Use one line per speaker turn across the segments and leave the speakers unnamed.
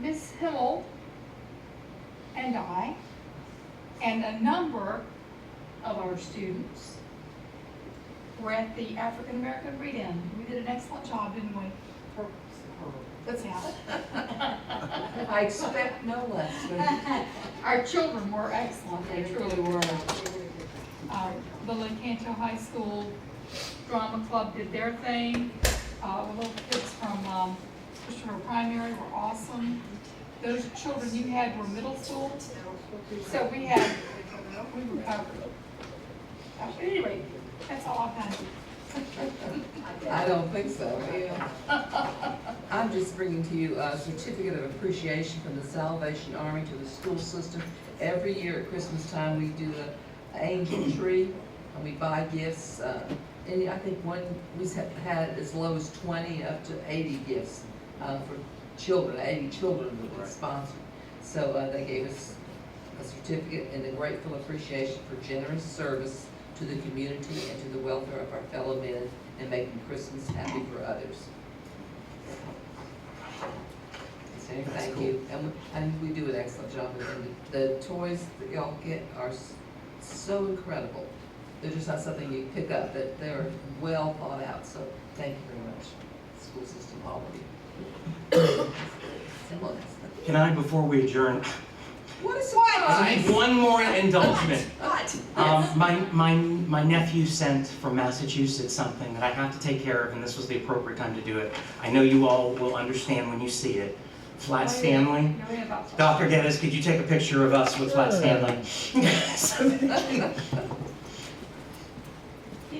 Ms. Hill and I, and a number of our students were at the African American Read-In. We did an excellent job, didn't we? For- That's how.
I expect no less.
Our children were excellent, they truly were. Uh, The Lincanto High School Drama Club did their thing. Uh, the Little kids from um, Christopher Primary were awesome. Those children you had were middle school, so we had, we were covered. Uh, Anyway, that's all I've done.
I don't think so, yeah. I'm just bringing to you a certificate of appreciation from the Salvation Army to the school system. Every year at Christmas time, we do the angel tree, and we buy gifts. uh, And I think one, we've had as low as twenty, up to eighty gifts uh, for children, eighty children that were sponsored. So uh, they gave us a certificate and a grateful appreciation for generous service to the community and to the welfare of our fellow men and making Christmas happy for others. So, thank you, and, we- and we do an excellent job, and the- the toys that y'all get are s- so incredible. They're just not something you pick up, that they're well thought out, so thank you very much, school system, all of you. Similar.
Can I, before we adjourn,
What is surprise?
one more indulgence?
What?
Um,
Yes.
my, my, my nephew sent from Massachusetts something that I have to take care of, and this was the appropriate time to do it. I know you all will understand when you see it. Flat Stanley.
You're in about-
Dr. Geddes, could you take a picture of us with Flat Stanley? So-
He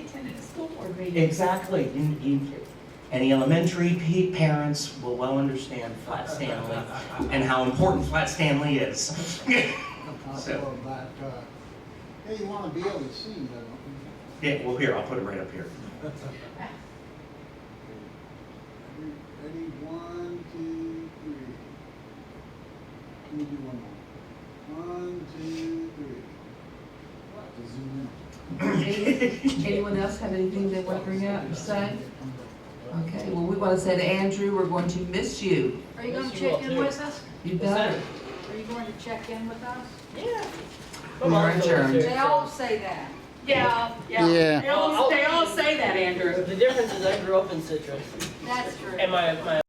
attended a school board meeting.
Exactly. You- you- Any elementary pe- parents will well understand Flat Stanley and how important Flat Stanley is. So-
But, uh, yeah, you wanna be able to see, though.
Yeah, well, here, I'll put it right up here.
Ready, one, two, three. Let me do one more. One, two, three. What? To zoom
Anyone else have anything they want to bring up or say? Okay, well, we want to say to Andrew, we're going to miss you.
Are you gonna check in with us?
You better.
Are you going to check in with us?
Yeah.
We are adjourned.
They all say that.
Yeah, yeah.
Yeah.
They all, they all say
that, Andrew.
The difference is I grew up in Citrus,
That's true.
and my, my